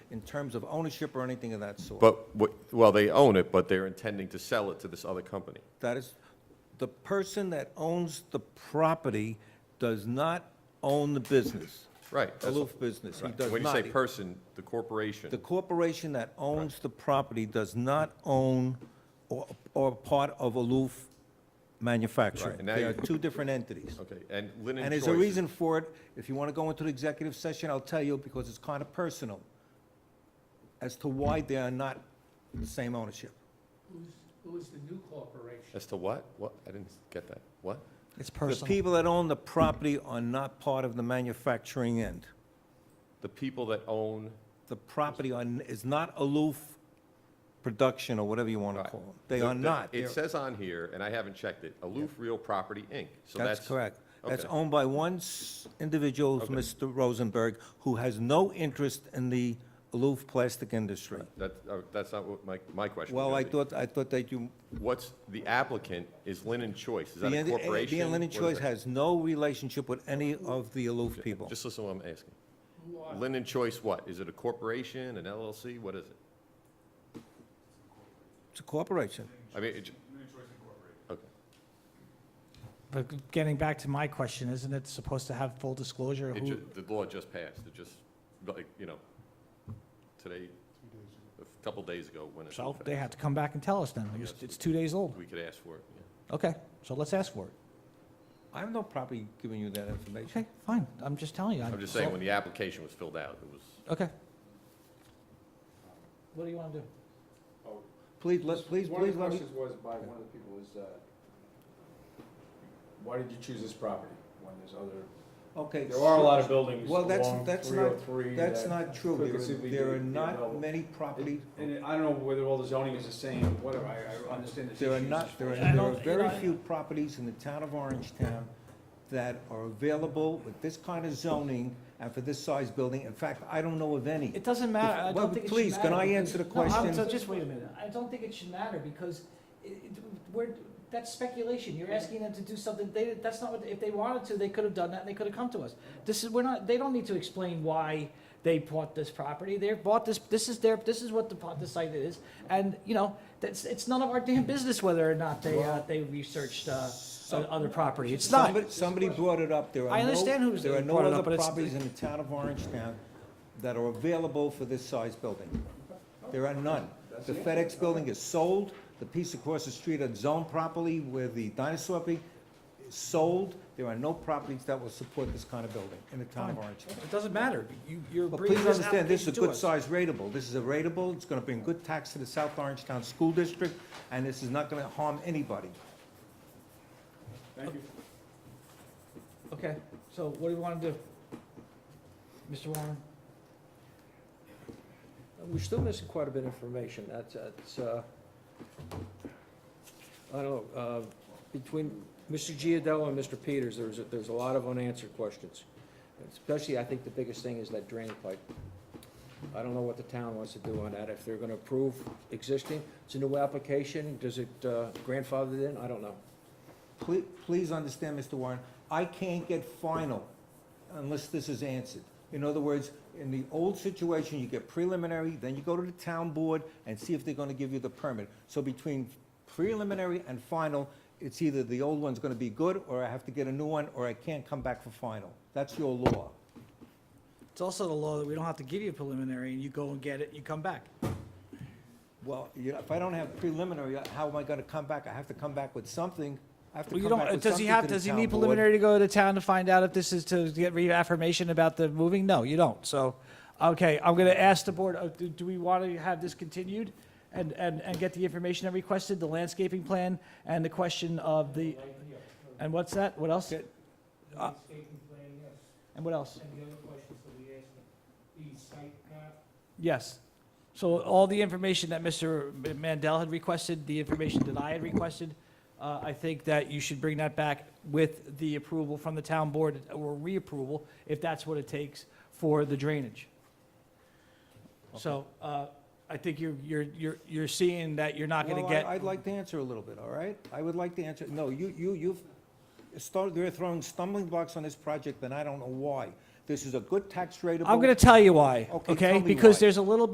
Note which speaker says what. Speaker 1: in terms of ownership or anything of that sort.
Speaker 2: But, what- well, they own it, but they're intending to sell it to this other company.
Speaker 1: That is, the person that owns the property does not own the business.
Speaker 2: Right, that's-
Speaker 1: Aloof business, he
Speaker 2: Right.
Speaker 1: does
Speaker 2: When you say
Speaker 1: not.
Speaker 2: person, the corporation.
Speaker 1: The corporation that owns the property does not own or, or part of Aloof
Speaker 2: Right,
Speaker 1: Manufacturing.
Speaker 2: and now
Speaker 1: They are
Speaker 2: you-
Speaker 1: two different entities.
Speaker 2: Okay, and Linen Choice.
Speaker 1: And there's a
Speaker 2: is-
Speaker 1: reason for it. If you want to go into the executive session, I'll tell you because it's kind of personal as to why they are not the same ownership.
Speaker 3: Who's, who's the new corporation?
Speaker 2: As to what? What? I didn't get that. What?
Speaker 4: It's
Speaker 1: The
Speaker 4: personal.
Speaker 1: people that own the property are not part of the manufacturing end.
Speaker 2: The people that own,
Speaker 1: The property on, is not Aloof Production or whatever you want to
Speaker 2: Right.
Speaker 1: call them. They
Speaker 2: the-
Speaker 1: are
Speaker 2: the-
Speaker 1: not.
Speaker 2: It
Speaker 1: They're-
Speaker 2: says on here, and I haven't checked it, Aloof Real Property, Inc. So that's.
Speaker 1: That's correct. That's
Speaker 2: okay.
Speaker 1: owned by one s- individual, Mr. Rosenberg, who has no interest in the Aloof plastic industry.
Speaker 2: That, uh, that's not what my, my question. was
Speaker 1: Well, I
Speaker 2: gonna be.
Speaker 1: thought, I thought that you
Speaker 2: What's, the applicant is Linen Choice. Is that
Speaker 1: The
Speaker 2: a
Speaker 1: Indi-
Speaker 2: corporation?
Speaker 1: The Inland
Speaker 2: What is
Speaker 1: Choice
Speaker 2: that?
Speaker 1: has no relationship with any of the Aloof people.
Speaker 2: Just listen to what I'm asking.
Speaker 3: Who are,
Speaker 2: Linen Choice what? Is it a corporation, an LLC? What is it?
Speaker 1: It's a corporation.
Speaker 2: I mean, it, okay.
Speaker 4: But getting back to my question, isn't it supposed to have full disclosure of
Speaker 2: It
Speaker 4: who?
Speaker 2: ju, the law just passed. It just, like, you know, today, a couple days ago, when it.
Speaker 4: So they have to come back and tell us then. It was- It's two days old.
Speaker 2: We could ask for it, yeah.
Speaker 4: Okay, so let's ask for it.
Speaker 1: I have no property giving you that information.
Speaker 4: Okay, fine. I'm just telling you.
Speaker 2: I'm just saying, when the application was filled out, it was,
Speaker 4: Okay. What do you want to do?
Speaker 1: Please, let, please,
Speaker 5: One of
Speaker 1: please
Speaker 5: the
Speaker 1: let me,
Speaker 5: questions was by one of the people is, uh, why did you choose this property when there's other,
Speaker 1: okay.
Speaker 5: there are a
Speaker 1: so-
Speaker 5: lot of buildings
Speaker 1: Well,
Speaker 5: along
Speaker 1: that's, that's not,
Speaker 5: 303
Speaker 1: that's
Speaker 5: that
Speaker 1: not true.
Speaker 5: could
Speaker 1: There
Speaker 5: conceivably
Speaker 1: are- There
Speaker 5: be-
Speaker 1: are
Speaker 5: be
Speaker 1: not
Speaker 5: available.
Speaker 1: many properties,
Speaker 5: And I don't know whether all the zoning is the same, whatever, I, I understand the
Speaker 1: there are
Speaker 5: issues
Speaker 1: not,
Speaker 5: as
Speaker 1: there are,
Speaker 5: far
Speaker 4: I
Speaker 1: there are
Speaker 4: don't- you
Speaker 1: very
Speaker 4: know, I-
Speaker 1: few properties in the town of Orange Town that are available with this kind of zoning and for this size building. In fact, I don't know of any.
Speaker 4: It doesn't matter. I
Speaker 1: Well,
Speaker 4: don't think it should matter.
Speaker 1: please, can I answer the
Speaker 4: because-
Speaker 1: question?
Speaker 4: No, I'm- so just wait a minute. I don't think it should matter because it, it, we're, that's speculation. You're asking them to do something, they, that's not what, if they wanted to, they could have done that and they could have come to us. This is, we're not, they don't need to explain why they bought this property. They bought this, this is their, this is what the, pot- the site is. And, you know, that's, it's none of our damn business whether or not they, uh, they researched, uh, o- other property. It's not.
Speaker 1: Somebody- Somebody brought it up, there are no...
Speaker 4: I understand who's
Speaker 1: There are no
Speaker 4: brought it up, but
Speaker 1: other
Speaker 4: it's-
Speaker 1: properties in the town of Orangetown that are available for this size building. There are none. The FedEx building is sold, the piece across the street that's zoned properly where the dinosaur be, is sold. There are no properties that will support this kind of building in the town of Orangetown.
Speaker 4: It doesn't matter. You, you're
Speaker 1: But
Speaker 4: bringing
Speaker 1: please
Speaker 4: this
Speaker 1: understand, this is a
Speaker 4: application to
Speaker 1: good
Speaker 4: us.
Speaker 1: size rateable. This is a rateable, it's gonna bring good tax to the South Orangetown School District, and this is not gonna harm anybody.
Speaker 5: Thank you.
Speaker 4: Okay, so what do you want to do? Mr. Warren?
Speaker 6: We're still missing quite a bit of information. That's, that's, uh, I don't know, uh, between Mr. Giadello and Mr. Peters, there's, a- there's a lot of unanswered questions. Especially, I think the biggest thing is that drain pipe. I don't know what the town wants to do on that, if they're gonna approve existing, it's a new application, does it uh, grandfather it in? I don't know.
Speaker 1: Please, please understand, Mr. Warren, I can't get final unless this is answered. In other words, in the old situation, you get preliminary, then you go to the town board and see if they're gonna give you the permit. So between preliminary and final, it's either the old one's gonna be good, or I have to get a new one, or I can't come back for final. That's your law.
Speaker 7: It's also the law that we don't have to give you a preliminary, and you go and get it, you come back.
Speaker 1: Well, you know, if I don't have preliminary, how am I gonna come back? I have to come back with something. I have to
Speaker 7: Well, you
Speaker 1: come back
Speaker 7: don't,
Speaker 1: with
Speaker 7: does he
Speaker 1: something
Speaker 7: have,
Speaker 1: to the
Speaker 7: does he
Speaker 1: town
Speaker 7: need
Speaker 1: board.
Speaker 7: preliminary to go to town to find out if this is to get reaffirmation about the moving? No, you don't. So, okay, I'm gonna ask the board, uh, do, do we want to have this continued? And, and, and get the information I requested, the landscaping plan, and the question of the, and what's that? What else?
Speaker 1: Okay.
Speaker 3: landscaping plan, yes,
Speaker 7: And what else?
Speaker 3: and the other questions that we asked, the site map,
Speaker 7: Yes. So all the information that Mr. Mandel had requested, the information that I had requested, uh, I think that you should bring that back with the approval from the town board or reapproval, if that's what it takes for the drainage. So uh, I think you're, you're, you're you're seeing that you're not going to
Speaker 1: Well, I-
Speaker 7: get.
Speaker 1: I'd like to answer a little bit, all right? I would like to answer, no, you, you, you've started, they're throwing stumbling blocks on this project, and I don't know why.
Speaker 4: This is a good tax rateable.
Speaker 1: I'm gonna tell you why,
Speaker 4: Okay, tell
Speaker 1: okay?
Speaker 4: me
Speaker 1: Because
Speaker 4: why.
Speaker 1: there's a little bit.